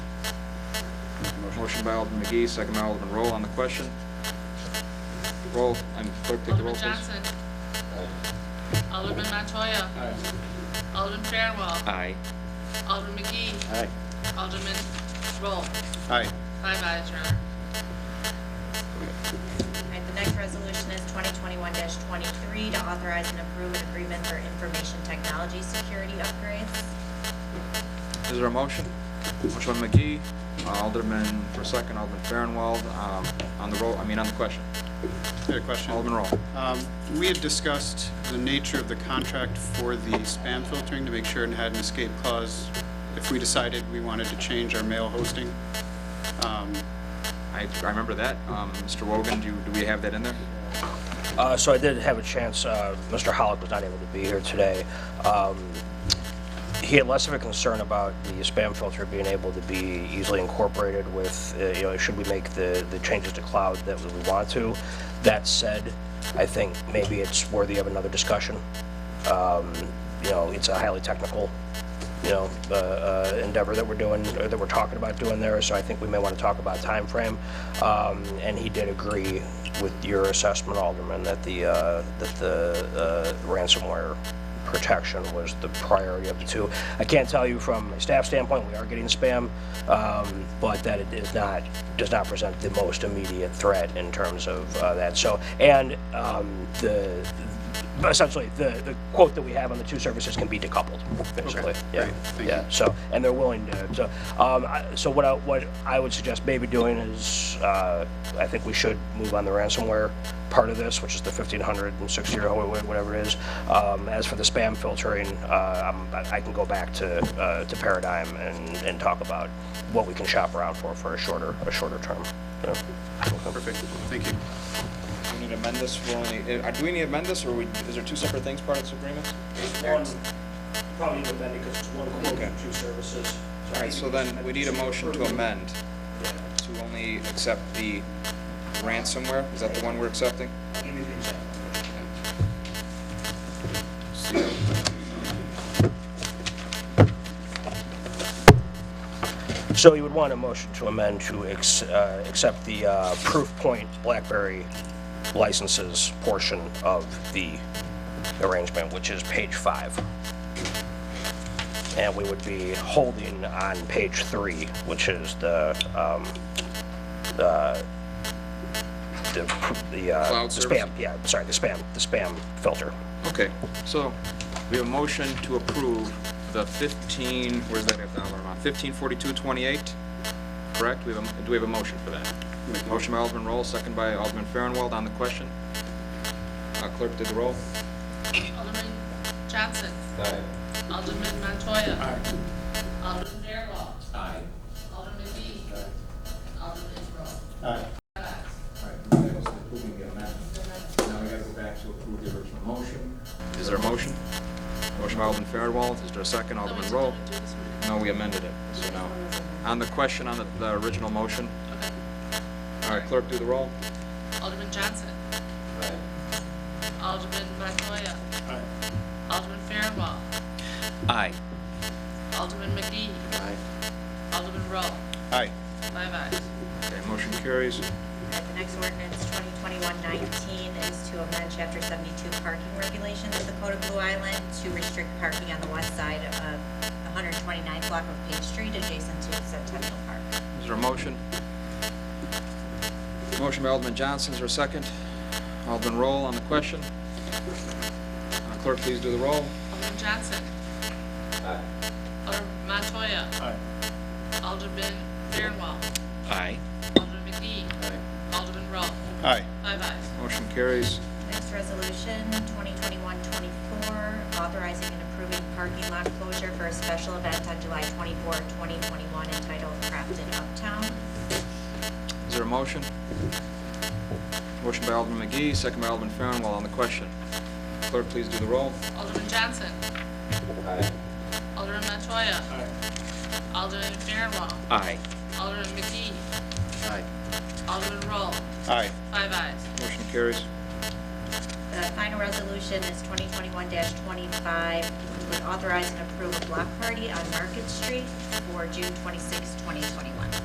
Motion by Alderman McGee, second by Alderman Roll on the question. Roll, I'm clerk, take the roll, Alderman please. Johnson. Alderman Montoya. Alderman Fairwell. Aye. Alderman McGee. Aye. Alderman Roll. Aye. Five ayes, Your Honor. All right, the next resolution is 2021-23 to authorize and approve an agreement for information technology security upgrades. Is there a motion? Motion by McGee, Alderman for second, Alderman Farnwell, um, on the roll, I mean, on the question. I had a question. Alderman Roll. Um, We had discussed the nature of the contract for the spam filtering to make sure it had an escape clause if we decided we wanted to change our mail hosting. Um, I, I remember that. Um, Mr. Wogan, do, do we have that in there? Uh, So I did have a chance, uh, Mr. Hollick was not able to be here today. Um, He had less of a concern about the spam filter being able to be easily incorporated with, uh, you know, should we make the the changes to cloud that we want to. That said, I think maybe it's worthy of another discussion. Um, You know, it's a highly technical, you know, uh, uh, endeavor that we're doing, or that we're talking about doing there, so I think we may want to talk about timeframe. Um, And he did agree with your assessment, Alderman, that the, uh, that the uh, ransomware protection was the priority of the two. I can't tell you from a staff standpoint, we are getting spam, um, but that it is not, does not present the most immediate threat in terms of uh, that. So, and um, the, essentially, the the quote that we have on the two services can be decoupled, basically. Yeah, great. Thank yeah. you. So, and they're willing to, so, um, I- so what I, what I would suggest maybe doing is, uh, I think we should move on the ransomware part of this, which is the fifteen hundred and sixty or wha- whatever it is. Um, as for the spam filtering, uh, I'm, I I can go back to, uh, to Paradigm and, and talk about what we can shop around for, for a shorter, a shorter term. Yeah. Perfect, thank you. Do we need to amend this? We're only, uh, do we need to amend this, or we, is there two separate things part of this agreement? One, probably even better because it's one quote Okay. and two services. So All right, so then we need a motion to amend to only accept the ransomware. Is that the one we're accepting? Anything's up. So you would want a motion to amend to ex- uh, accept the uh, Proof Point BlackBerry licenses portion of the arrangement, which is page five. And we would be holding on page three, which is the, um, the, the, the uh, Cloud the service? spam, yeah, sorry, the spam, the spam filter. Okay, so we have a motion to approve the 15, where's that dollar amount? 154228, correct? We have, a- do we have a motion for that? Motion by Alderman Roll, second by Alderman Farnwell on the question. Uh, Clerk, did the roll? Alderman Johnson. Alderman Montoya. Alderman Fairwell. Alderman McGee. Alderman Roll. Five ayes. All right, that was approving the amendment. Now we gotta go back to approve the original motion. Is there a motion? Motion by Alderman Farnwell, is there a second? Alderman Someone's Roll? gonna do this one. No, we amended it, so no. On the question, on the, the original motion, all right, clerk, do the roll. Alderman Johnson. Alderman Montoya. Alderman Fairwell. Aye. Alderman McGee. Alderman Rowe. Aye. Five ayes. Okay, motion carries. All right, the next ordinance, 2021-19, is to amend Chapter 72 parking regulations of the Code of Blue Island to restrict parking on the west side of 129th block of Page Street adjacent to Centennial Park. Is there a motion? Motion by Alderman Johnson, is there a second? Alderman Roll on the question. Uh, Clerk, please do the roll. Alderman Johnson. Alderman Montoya. Alderman Fairwell. Aye. Alderman McGee. Alderman Rowe. Aye. Five ayes. Motion carries. Next resolution, 2021-24, authorizing and approving parking lot closure for a special event on July 24, 2021 entitled Crafted Uptown. Is there a motion? Motion by Alderman McGee, second by Alderman Farnwell on the question. Clerk, please do the roll. Alderman Johnson. Alderman Montoya. Alderman Fairwell. Aye. Alderman McGee. Aye. Alderman Rowe. Aye. Five ayes. Motion carries. The final resolution is 2021-25, which would authorize and approve a block party on Market Street for June 26, 2021.